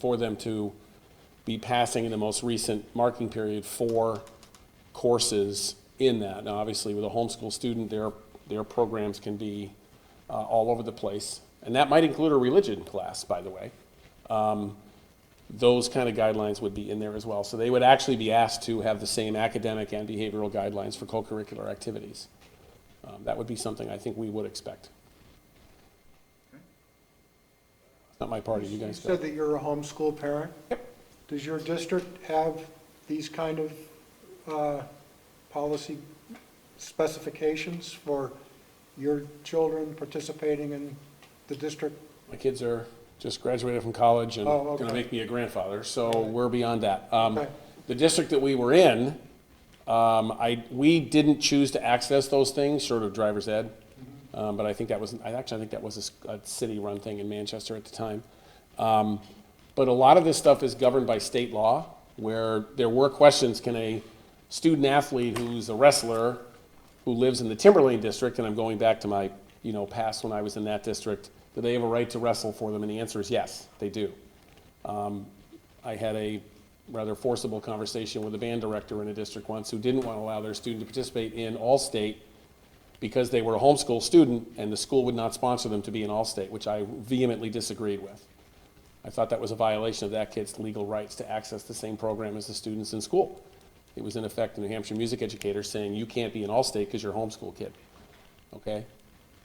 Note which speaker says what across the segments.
Speaker 1: for them to be passing in the most recent marking period four courses in that. Now, obviously, with a homeschool student, their, their programs can be uh, all over the place. And that might include a religion class, by the way Um, those kind of guidelines would be in there as well. So they would actually be asked to have the same academic and behavioral guidelines for co-curricular activities. Um, That would be something I think we would expect. Not my party, you
Speaker 2: You
Speaker 1: guys go.
Speaker 2: said that you're a homeschool parent? Yep. Does your district have these kind of uh, policy specifications for your children participating in the district?
Speaker 1: My kids are, just graduated from college and
Speaker 2: Oh,
Speaker 1: gonna
Speaker 2: okay.
Speaker 1: make me a grandfather, so we're beyond that. Um,
Speaker 2: Okay.
Speaker 1: The district that we were in, um, I, we didn't choose to access those things, short of driver's ed. Um, but I think that was, I actually, I think that was a s- a, city-run thing in Manchester at the time. Um, but a lot of this stuff is governed by state law, where there were questions, can a student athlete who's a wrestler, who lives in the Timberlane district, and I'm going back to my, you know, past when I was in that district, do they have a right to wrestle for them? And the answer is yes, they do. I had a rather forcible conversation with a band director in a district once who didn't want to allow their student to participate in All-State because they were a homeschool student and the school would not sponsor them to be in All-State, which I vehemently disagreed with. I thought that was a violation of that kid's legal rights to access the same program as the students in school. It was in effect a New Hampshire music educator saying, you can't be in All-State because you're a homeschool kid. Okay?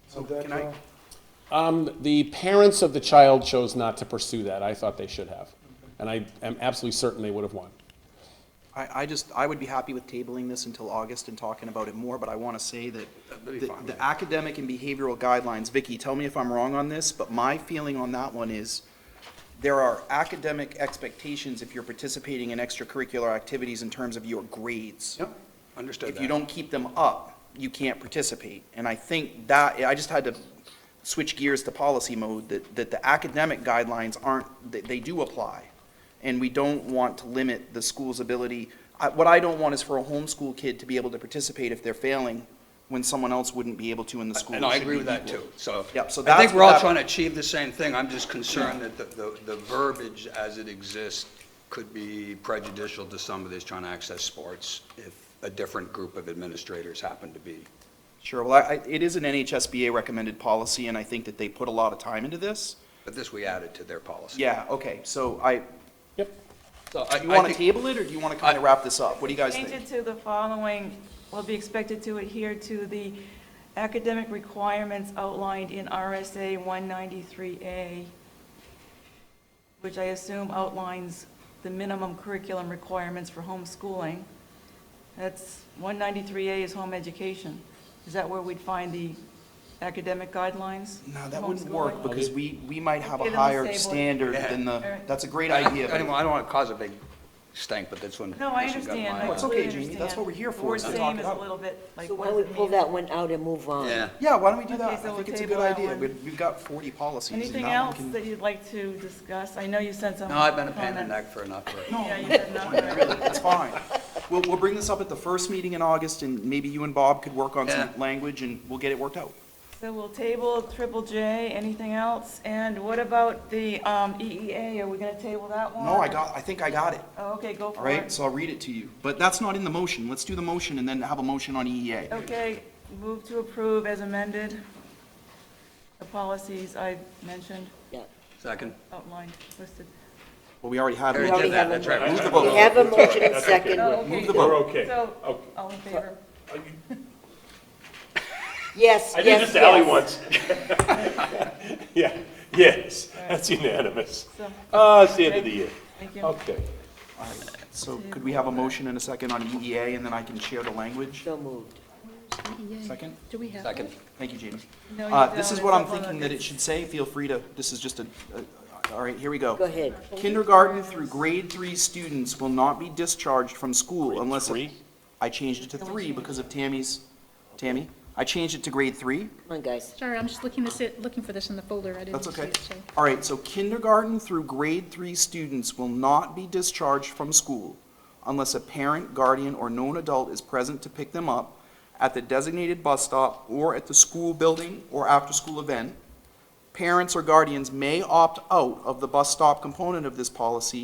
Speaker 2: So that,
Speaker 3: can I-
Speaker 2: uh,
Speaker 1: Um, the parents of the child chose not to pursue that. I thought they should have. And I am absolutely certain they would have won.
Speaker 3: I, I just, I would be happy with tabling this until August and talking about it more, but I want to say that
Speaker 4: be
Speaker 3: the-
Speaker 4: fine with
Speaker 3: the academic and behavioral guidelines, Vicky, tell me if I'm wrong on this, but my feeling on that one is there are academic expectations if you're participating in extracurricular activities in terms of your grades.
Speaker 4: Yep, understood
Speaker 3: If you don't keep them up, you can't participate. And I think that, I just had to switch gears to policy mode, that, that the academic guidelines aren't, they, they do apply. And we don't want to limit the school's ability. I, what I don't want is for a homeschool kid to be able to participate if they're failing, when someone else wouldn't be able to in the school.
Speaker 4: And I
Speaker 3: It should
Speaker 4: agree
Speaker 3: be
Speaker 4: with that
Speaker 3: equal.
Speaker 4: too, so.
Speaker 3: Yep, so
Speaker 4: I
Speaker 3: that's
Speaker 4: think we're
Speaker 3: what
Speaker 4: all
Speaker 3: that-
Speaker 4: trying to achieve the same thing, I'm just concerned that the, the- the verbiage as it exists could be prejudicial to somebody's trying to access sports if a different group of administrators happen to be.
Speaker 3: Sure, well, I, I- it is an NHSBA recommended policy, and I think that they put a lot of time into this.
Speaker 4: But this we added to their policy.
Speaker 3: Yeah, okay, so I,
Speaker 1: Yep.
Speaker 4: So I,
Speaker 3: do you
Speaker 4: I
Speaker 3: want to
Speaker 4: think,
Speaker 3: table it, or do you want to kind of wrap this up? What do you guys think?
Speaker 5: Change it to the following, will be expected to adhere to the academic requirements outlined in RSA 193A, which I assume outlines the minimum curriculum requirements for homeschooling. That's, 193A is home education. Is that where we'd find the academic guidelines?
Speaker 3: No,
Speaker 5: for
Speaker 3: that wouldn't
Speaker 5: homeschooling?
Speaker 3: work because we, we might have a
Speaker 5: Give them the
Speaker 3: higher
Speaker 5: same
Speaker 3: standard
Speaker 4: one.
Speaker 3: than the,
Speaker 5: Yeah. Alright.
Speaker 3: that's a great
Speaker 4: I, I
Speaker 3: idea.
Speaker 4: don't
Speaker 3: but-
Speaker 4: want to cause a big stink, but this one.
Speaker 5: No, I
Speaker 4: this one got
Speaker 5: understand.
Speaker 4: my-
Speaker 5: I
Speaker 3: No, it's
Speaker 5: completely
Speaker 3: okay, Jeannie. That's
Speaker 5: understand.
Speaker 3: what we're here for,
Speaker 5: The word
Speaker 3: is to talk
Speaker 5: same
Speaker 3: it
Speaker 5: is a
Speaker 3: out.
Speaker 5: little bit like.
Speaker 6: So
Speaker 5: what
Speaker 6: why
Speaker 5: does
Speaker 6: don't we
Speaker 5: it
Speaker 6: pull
Speaker 5: mean?
Speaker 6: that one out and move on?
Speaker 4: Yeah,
Speaker 3: Yeah, why don't we do
Speaker 5: Okay,
Speaker 3: that?
Speaker 5: so
Speaker 3: I think
Speaker 5: we'll
Speaker 3: it's a
Speaker 5: table
Speaker 3: good
Speaker 5: that
Speaker 3: idea.
Speaker 5: one.
Speaker 3: We- We've got forty policies. and
Speaker 5: Anything
Speaker 3: that one
Speaker 5: else
Speaker 3: can-
Speaker 5: that you'd like to discuss? I know you sent some.
Speaker 4: no, I've been a pain in the
Speaker 5: comments.
Speaker 4: neck for enough. right?
Speaker 5: Yeah, you said nothing.
Speaker 3: Really, It's fine. We'll, we'll bring this up at the first meeting in August and maybe you and Bob could work on some
Speaker 4: Yeah.
Speaker 3: language and we'll get it worked out.
Speaker 5: So we'll table triple J, anything else? And what about the um, EEA? Are we going to table that one?
Speaker 3: No, I got, I think I got it,
Speaker 5: Oh, Okay, go
Speaker 3: all
Speaker 5: for
Speaker 3: right?
Speaker 5: it.
Speaker 3: So I'll read it to you. But that's not in the motion. Let's do the motion and then have a motion on EEA.
Speaker 5: Okay, move to approve as amended. The policies I mentioned,
Speaker 6: Yeah.
Speaker 4: Second.
Speaker 5: outlined, listed.
Speaker 3: Well, we already had
Speaker 4: We
Speaker 3: it.
Speaker 4: already
Speaker 6: have
Speaker 4: that's
Speaker 6: a-
Speaker 4: right,
Speaker 6: We
Speaker 4: that's
Speaker 3: right.
Speaker 6: have a motion and second.
Speaker 5: Oh, okay.
Speaker 3: the vote.
Speaker 7: We're okay.
Speaker 5: So,
Speaker 7: Okay.
Speaker 5: all in favor?
Speaker 6: Yes,
Speaker 7: I did
Speaker 6: yes,
Speaker 7: this to Ally
Speaker 6: yes.
Speaker 7: once. Yeah, yes, that's unanimous.
Speaker 5: So,
Speaker 7: Ah, it's the end of the year.
Speaker 5: thank you.
Speaker 7: Okay.
Speaker 3: So could we have a motion and a second on EEA and then I can share the language?
Speaker 6: So moved.
Speaker 3: Second?
Speaker 8: Do we have?
Speaker 4: Second.
Speaker 3: Thank you, James.
Speaker 5: No, you
Speaker 3: Uh, This
Speaker 5: don't.
Speaker 3: is
Speaker 5: It's
Speaker 3: what I'm
Speaker 5: up on the-
Speaker 3: thinking that it should say, feel free to, this is just a, a- all right, here we go.
Speaker 6: Go ahead.
Speaker 3: Kindergarten through grade three students will not be discharged from school unless.
Speaker 1: three?
Speaker 3: I changed it to three because of Tammy's, Tammy, I changed it to grade three.
Speaker 6: Come on, guys.
Speaker 8: Sorry, I'm just looking this, looking for this in the folder. I didn't
Speaker 3: That's
Speaker 8: see
Speaker 3: okay.
Speaker 8: it, so.
Speaker 3: All right, so kindergarten through grade three students will not be discharged from school unless a parent, guardian, or known adult is present to pick them up at the designated bus stop or at the school building or after-school event parents or guardians may opt out of the bus stop component of this policy